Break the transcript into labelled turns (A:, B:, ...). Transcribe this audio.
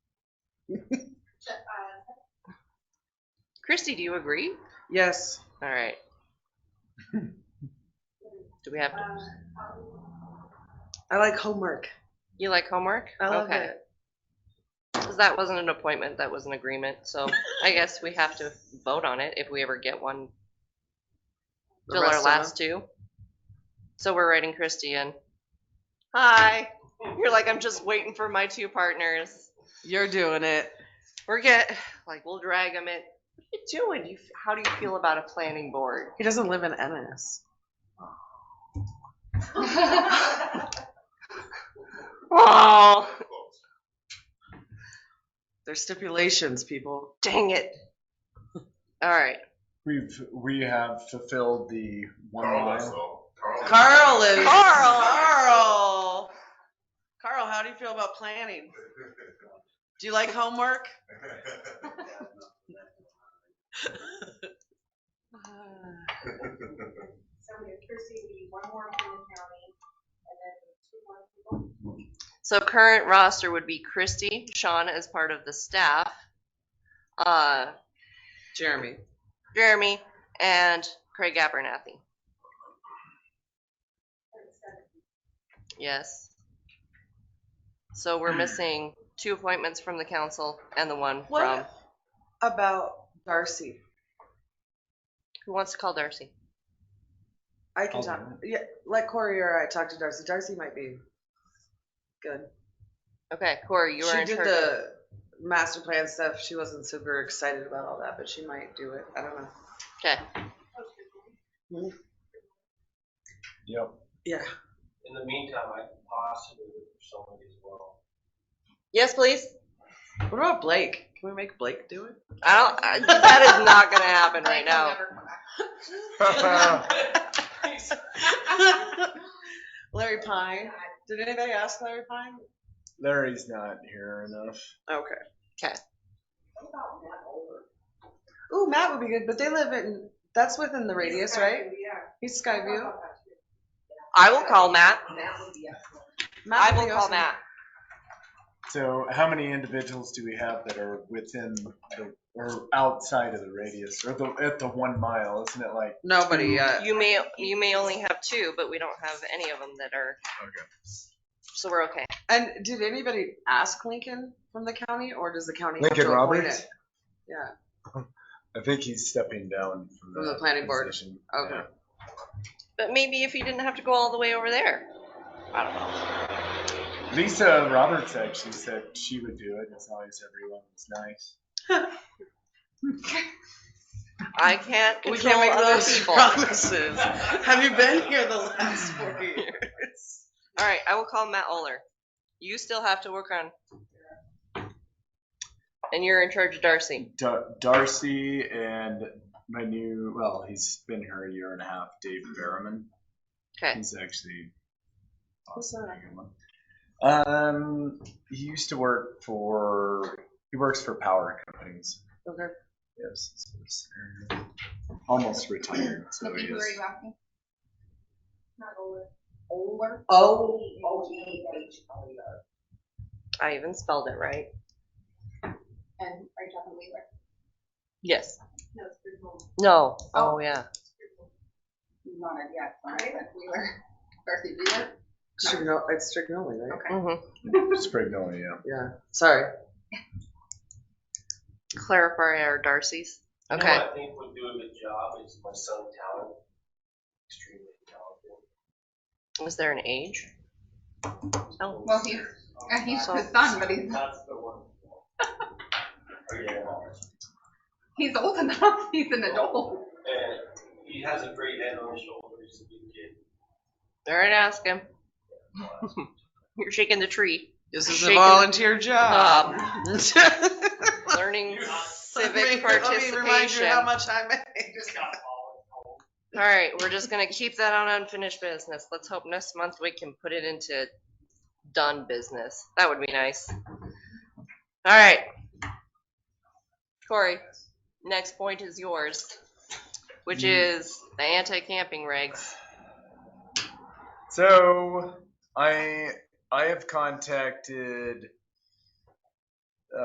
A: Christy, do you agree?
B: Yes.
A: All right. Do we have, to-
B: I like homework.
A: you like homework?
B: I love
A: Okay.
B: it.
A: Because that wasn't an appointment, that was an agreement, so I guess we have to vote on it if we ever get one.
B: The
A: Fill
B: rest
A: our
B: of
A: last two. So we're writing Christy in. Hi, you're like, I'm just waiting for my two partners.
B: You're doing it.
A: We're get, like, we'll drag them in. What are you doing? You, how do you feel about a planning board?
B: He doesn't live in Ennis.
A: Oh,
B: There's stipulations, people.
A: dang it. All right,
C: We've we have fulfilled the one
D: Carl lives
C: mile.
D: though. Carl.
B: Carl lives.
A: Carl!
B: Carl. Carl, how do you feel about planning? Do you like homework?
E: So we have Kirsty, we need one more from the county, and then two more people.
A: so current roster would be Christy, Sean as part of the staff, uh,
B: Jeremy.
A: Jeremy, and Craig Abernathy. Yes. So
B: Hmm.
A: we're missing two appointments from the council and the one from,
B: What about Darcy?
A: who wants to call Darcy?
B: I can
C: I'll
B: talk.
C: do
B: Yeah, let Corey or I talk to Darcy. Darcy might be good.
A: Okay, Corey, you are
B: she
A: in
B: did
A: charge. of-
B: the master plan stuff. She wasn't super excited about all that, but she might do it. I don't know.
A: Okay,
E: Oh,
C: Yep.
B: Yeah.
F: In the meantime, I could possibly look for somebody as well.
A: yes, please.
B: What about Blake? Can we make Blake do it?
A: I don't, I- that is not gonna happen right now.
B: Larry Pine. Did anybody ask Larry Pine?
C: Larry's not here enough.
B: Okay.
A: 'Kay.
E: What about Matt Olber?
B: Ooh, Matt would be good, but they live in. That's within the radius, right?
E: Yeah.
B: He's
E: I thought
B: Skyview.
E: about that too.
A: I will call Matt.
E: Matt would be excellent.
A: I
B: would
A: will
B: be
A: call
B: awesome.
A: Matt.
C: So how many individuals do we have that are within the or outside of the radius or the at the one mile? Isn't it like
B: Nobody uh, yet.
A: You may, you may only have two, but we don't have any of them that are,
C: okay?
A: so we're okay.
B: And did anybody ask Lincoln from the county, or does the county? have
C: Lincoln
B: to appoint
C: Roberts?
B: it? Yeah.
C: I think he's stepping down from,
B: From
C: that
B: the planning board.
C: position.
B: Okay.
C: Yeah.
A: But maybe if you didn't have to go all the way over there. I don't know.
C: Lisa Roberts actually said she would do it as long as everyone was nice.
A: I can't
B: We
A: control
B: can't make
A: other
B: those
A: people.
B: promises. Have you been here the last four years?
A: All right, I will call Matt Oler. You still have to work on. And you're in charge of Darcy.
C: Dar- Darcy and my new, well, he's been here a year and a half, Dave Berriman.
A: Okay.
C: He's actually
B: Who's
C: a
B: that?
C: good one. Um, he used to work for, he works for power companies.
B: Okay.
C: Yes. so he's, uh, Almost retired, so
E: What
C: he
E: people are
C: is.
E: you asking? Matt Olber. Olber?
B: Oh.
E: O-E-H-L-E-R.
A: I even spelled it right.
E: And are you talking Wheeler?
A: Yes.
E: No, it's Bridgewater.
A: No. Oh, yeah.
E: Not it yet, sorry, that's Wheeler. Darcy Wheeler?
B: Strigno- it's Strignoli, right?
E: Okay.
A: Mm-hmm.
C: Sprignoli, yeah.
B: Yeah. Sorry.
A: Clarify our Darcy's.
F: You know
A: Okay.
F: what I think would do a good job is my son Talon, extremely talented.
A: Is there an age? Oh.
E: Well, he's, Uh, he's
A: So-
E: the son, but he's,
F: That's the one. Oh, Yeah.
E: he's old enough, he's an adult.
F: And he has a great head on his shoulders, he's a good kid.
A: All right, ask him. You're shaking the tree.
B: This is a
A: Shaking- Um,
B: volunteer job.
A: Learning
B: Let
A: civic
B: me- Let me remind you
A: participation.
B: how
A: All
B: much I make.
A: right, we're just gonna keep that on unfinished business. Let's hope next month we can put it into done business. That would be nice. All right. Corey, next point is yours, which is the anti-camping regs.
C: So I I have contacted